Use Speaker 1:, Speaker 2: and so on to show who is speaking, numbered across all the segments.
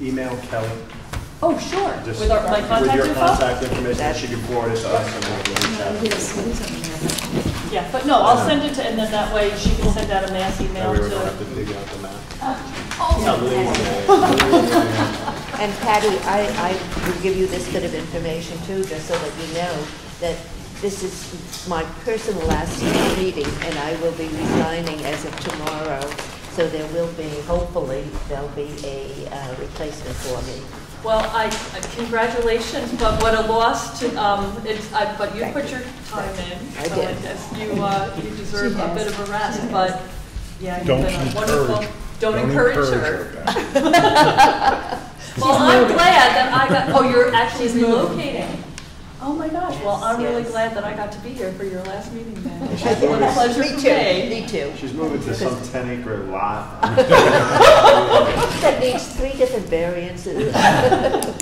Speaker 1: email Kelly?
Speaker 2: Oh, sure,
Speaker 1: just
Speaker 2: with our, my contact
Speaker 1: With your
Speaker 2: info?
Speaker 1: contact information, she can forward it to us and we'll reach out.
Speaker 2: Yeah, but no, I'll send it to, and then that way she can send out a mass
Speaker 1: That
Speaker 2: email
Speaker 1: way we don't have
Speaker 2: to. Oh,
Speaker 1: to dig out the map.
Speaker 3: And Patty, I, I will give you this bit of information too, just so that you know that this is my personal last meeting, and I will be resigning as of tomorrow. So there will be, hopefully, there'll be a uh, replacement for me.
Speaker 2: Well, I, I- congratulations, but what a loss to, um, it's, I, but you
Speaker 3: Thank
Speaker 2: put
Speaker 3: you.
Speaker 2: your time in.
Speaker 3: I
Speaker 2: so
Speaker 3: did.
Speaker 2: guess You, uh, you deserve a bit of a rest, but, yeah, you've
Speaker 4: Don't
Speaker 2: been a wonderful.
Speaker 4: encourage.
Speaker 2: Don't encourage her.
Speaker 4: Okay.
Speaker 2: Well, I'm glad that I got, oh, you're actually relocating. Oh, my gosh, well, I'm really
Speaker 3: Yes.
Speaker 2: glad that I got to be here for your last meeting then.
Speaker 1: She's
Speaker 2: What
Speaker 1: moving-
Speaker 2: a pleasure
Speaker 3: Me
Speaker 2: for
Speaker 3: too,
Speaker 2: me.
Speaker 3: me too.
Speaker 1: She's moving to some ten acre lot.
Speaker 3: That needs three different variances.
Speaker 2: Uh,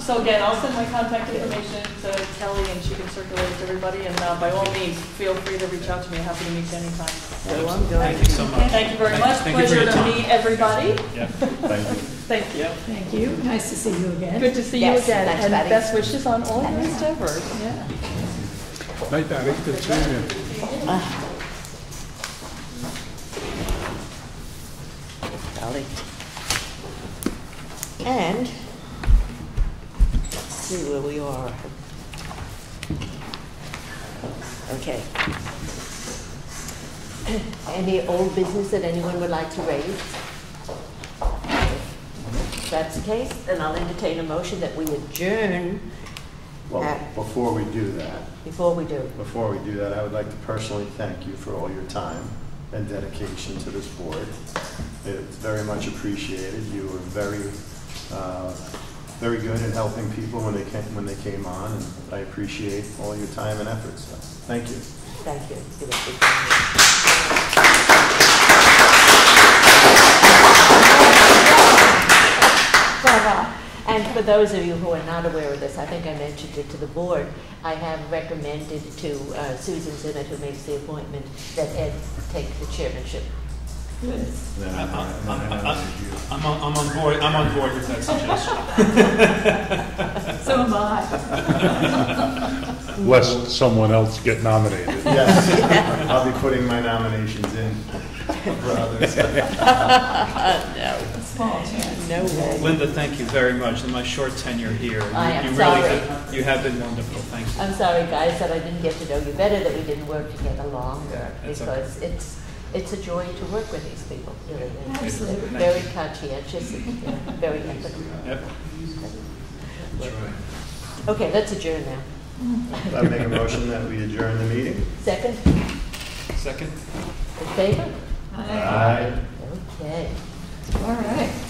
Speaker 2: So again, I'll send my contact information to Kelly and she can circulate it to everybody. And uh, by all means, feel free to reach out to me. Happy to meet you anytime.
Speaker 3: So I'm going
Speaker 5: Thank you so
Speaker 3: to
Speaker 5: much.
Speaker 2: Thank you very much.
Speaker 5: Thank you for your
Speaker 2: Pleasure to
Speaker 5: time.
Speaker 2: meet everybody.
Speaker 5: Yeah.
Speaker 1: Thank you.
Speaker 2: Thank you.
Speaker 6: Thank you. Nice to see you again.
Speaker 2: Good to see you
Speaker 3: Yes,
Speaker 2: again.
Speaker 3: thanks,
Speaker 2: And
Speaker 3: Patty.
Speaker 2: best wishes on all your endeavors.
Speaker 6: Yeah.
Speaker 4: Night, Patty. Good seeing you.
Speaker 3: Golly. And, let's see where we are. Okay. Any old business that anyone would like to raise? If that's the case, then I'll entertain a motion that we adjourn
Speaker 1: Well, before we do that,
Speaker 3: before we do.
Speaker 1: before we do that, I would like to personally thank you for all your time and dedication to this board. It's very much appreciated. You were very, uh, very good at helping people when they came, when they came on, and I appreciate all your time and efforts. So, Thank you.
Speaker 3: Thank you. And for those of you who are not aware of this, I think I mentioned it to the board, I have recommended to uh, Susan Zimmett, who makes the appointment, that Ed take the chairmanship.
Speaker 5: I'm, I'm, I'm, I'm- I'm on, I'm on board, I'm on board with that suggestion.
Speaker 2: So am I.
Speaker 4: Lest someone else get nominated.
Speaker 1: Yes, I'll be putting my nominations in for others.
Speaker 3: No way.
Speaker 5: Linda, thank you very much. In my short tenure here, you
Speaker 3: I am
Speaker 5: you really,
Speaker 3: sorry.
Speaker 5: have- you have been wonderful. Thank you.
Speaker 3: I'm sorry, guys, that I didn't get to know you better, that we didn't work together longer,
Speaker 5: That's okay.
Speaker 3: because it's, it's a joy to work with these people, really. They're- they're
Speaker 6: Absolutely.
Speaker 3: Very conscientious, and they're very ethical.
Speaker 5: Yep.
Speaker 3: Okay, let's adjourn now.
Speaker 1: I make a motion that we adjourn the meeting.
Speaker 3: Second,
Speaker 5: Second?
Speaker 3: in favor?
Speaker 6: Hi.
Speaker 1: Aye.
Speaker 3: Okay.
Speaker 6: All right.